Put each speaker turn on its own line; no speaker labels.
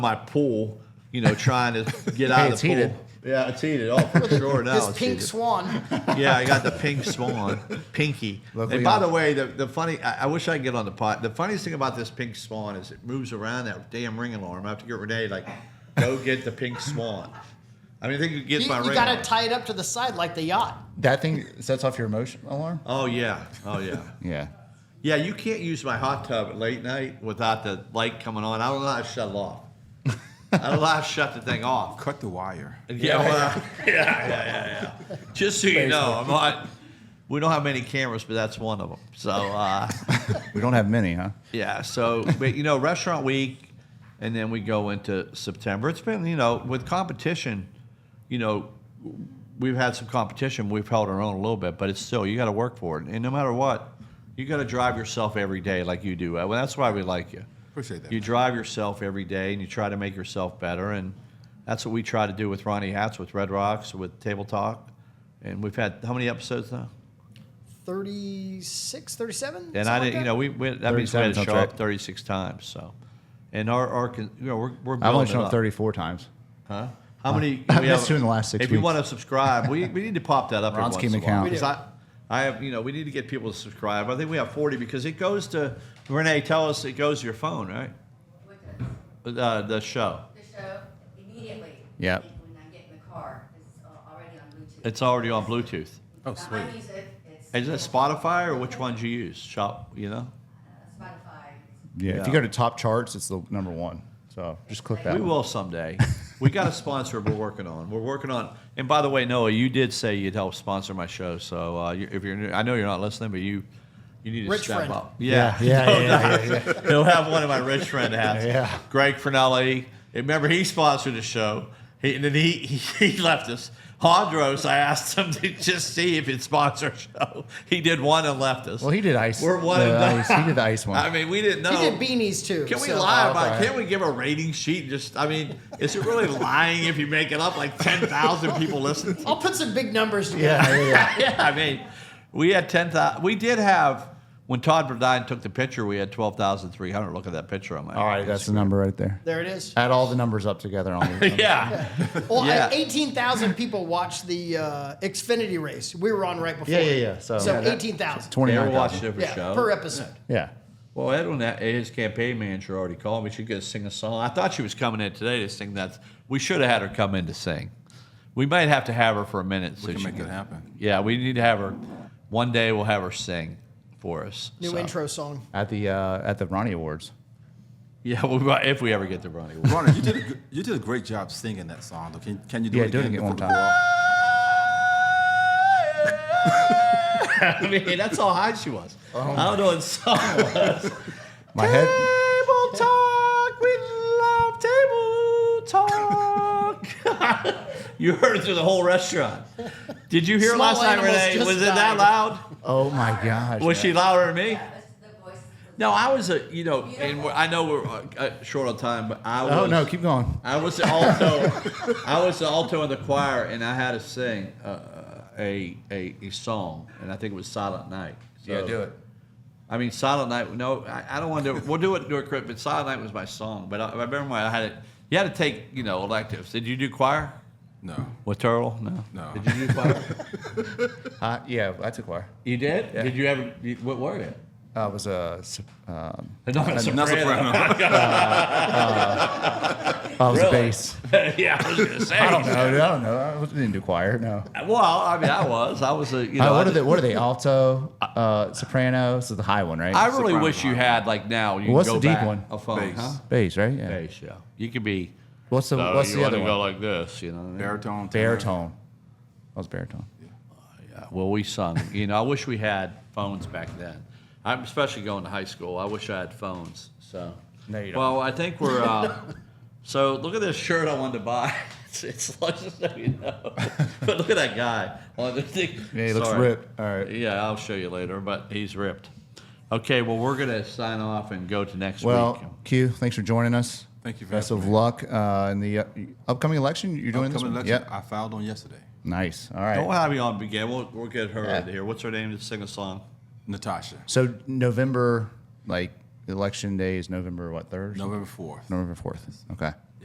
my pool, you know, trying to get out
Hey,
of
it's
the pool.
heated.
Yeah, it's heated. Oh, for sure now.
This
it's
pink
heated.
swan.
Yeah, I got the pink swan, pinky.
Luckily
and by
I'm-
the way, the, the funny, I, I wish I could get on the pot. The funniest thing about this pink swan is it moves around that damn ring alarm. I have to get Renee, like, go get the pink swan. I mean, I think you
You,
get my
you
ring.
got
alarm.
to tie it up to the side like the yacht.
That thing sets off your emotion alarm.
oh, yeah. Oh, yeah.
Yeah.
Yeah, you can't use my hot tub at late night without the light coming on. I don't know how to shut it off. I don't know how to shut the thing off.
Cut the wire.
Yeah, well, yeah, yeah, yeah, yeah. Just so you know, I'm not. We don't have many cameras, but that's one of them. So uh,
We don't have many, huh?
yeah, so but you know, restaurant week, and then we go into September. It's been you know with competition, you know, we've had some competition. We've held our own a little bit, but it's still you got to work for it, and no matter what, you got to drive yourself every day like you do. Uh, Well, that's why we like you.
Appreciate that.
You drive yourself every day, and you try to make yourself better, and that's what we try to do with Ronnie Hats, with Red Rocks, with Table Talk, and we've had how many episodes now?
36, 37?
And I
something
didn't,
like
you
that?
know, we, we that means we
37
had to
sounds
show
right.
up 36 times. So, and our, our con- you know, we're, we're building
I've only
it
shown
up.
up 34 times.
Huh? How many?
I've
we
missed
have-
two in the last six
If you
weeks.
want to subscribe, we, we need to pop that up. every
Ron's
once
keeping
in a while,
count. We
'cause
do.
I, I have, you know, we need to get people to subscribe. I think we have 40 because it goes to Renee. Tell us it goes to your phone, right?
What does
Uh, the show.
the show immediately?
Yeah.
When I get in the car, it's uh, already on Bluetooth.
It's already on Bluetooth.
Oh,
Not my
sweet.
music, it's-
Is it Spotify or which ones you use? Shop, you know.
Uh, Spotify.
Yeah. If you go to top charts, it's the number one. So just click that.
We
one.
will someday. We got a sponsor we're working on. We're working on. And by the way, Noah, you did say you'd help sponsor my show. So uh, you, if you're, new, I know you're not listening, but you, you need to
Rich
step
friend.
up.
Yeah. Yeah. Yeah. yeah, yeah, yeah.
He'll have one of my rich friend hats.
Yeah.
Greg Fernelli. Remember, he sponsored the show. He, and then he, he, he left us. Hondros, I asked him to just see if he'd sponsor a show. He did one and left us.
Well, he did ice.
We're one
the
and done.
ice. He did the ice one.
I mean, we didn't know.
He did beanies too.
Can we
so-
lie
Oh,
about?
okay.
Can we give a rating sheet? And just, I mean, is it really lying if you make it up? Like ten thousand people listen.
I'll put some big numbers together.
yeah. Yeah. yeah.
yeah, I mean, we had ten thousand. We did have when Todd Verdine took the picture. We had twelve thousand three hundred. Look at that picture on my.
All right. That's the number right there.
There it is.
Add all the numbers up together on the.
Yeah.
Well,
Yeah.
I- 18,000 people watched the uh, Xfinity race. We were on right before.
Yeah, yeah, yeah. So-
so
Yeah, that-
18,000.
They were
29.
watching every
Yeah,
show.
per episode.
Yeah.
Well, Edwin, that- his campaign manager already called me. She could sing a song. I thought she was coming in today to sing that. We should have had her come in to sing. We might have to have her for a minute. so
We can
she
make it happen.
Yeah, we need to have her. One day we'll have her sing for us.
New
so.
intro song.
At the uh, at the Ronnie Awards.
Yeah, we might, if we ever get to Ronnie. Wood.
Ronnie, you did a, good- you did a great job singing that song. Though. Can, can you do
Yeah,
it
do it
again?
again one
before
time.
we go off?
I mean, that's how high she was. I don't know what song it was.
My head.
Table talk, we love table talk. you heard it through the whole restaurant. Did you hear it
Small
last night,
animals
Renee?
just
Was it that
died.
loud?
Oh my gosh.
Was she louder than me?
That was the voice.
No, I was a you know, and we're- I know we're uh, uh, short on time, but I was.
Oh no! Keep going.
I was the alto. I was the alto in the choir, and I had to sing uh, a, a a song, and I think it was Silent Night. So- I mean, Silent Night. No, I, I don't want to. do it. We'll do it. Do it, Chris. But Silent Night was my song. But I, I remember when I had it. You had to take you know electives. Did you do choir?
No.
With turtle? No.
No.
Did you do choir?
Uh, yeah, that's a choir.
you did. Did you ever? you- What were you?
Uh, it was a. s- Um,
Not a soprano.
Not soprano.
oh, it was
Really?
a bass.
yeah, I was gonna say.
I don't know. dude, I don't know. I was- didn't do choir. No.
Well, I mean, I was. I was a. You know,
Uh,
I
what are
just-
they? What are they? Alto, uh, soprano. This is the high one, right?
I really
Soprano
wish you
high.
had like now. You can
What's
go
the deep
back
one?
A phone,
Bass.
huh?
bass, right? Yeah.
Bass, yeah. You could be.
What's the
so
What's
you
the
wanna
other one?
go like this, you know. what I mean?
Baritone. tenor.
baritone. That was baritone.
Yeah, well, we sung. You know, I wish we had phones back then. I'm especially going to high school. I wish I had phones. So.
No, you don't.
Well, I think we're. Uh, so look at this shirt I wanted to buy. It's, it's like, just so you know. but look at that guy on the thing.
Yeah, he looks
Sorry.
ripped. All right.
Yeah, I'll show you later, but he's ripped. Okay, well, we're gonna sign off and go to next week.
Well, Q, thanks for joining us.
Thank you for
Best
having
of
me.
luck uh, in the uh, upcoming election. You're doing
Upcoming
this one?
election.
Yep.
I filed on yesterday.
Nice. All right.
Don't have me on again. We'll, we'll get her
Yeah.
out here. What's her name to sing a song?
Natasha,
So November, like election day is November what third?
November 4th.
November fourth. Okay.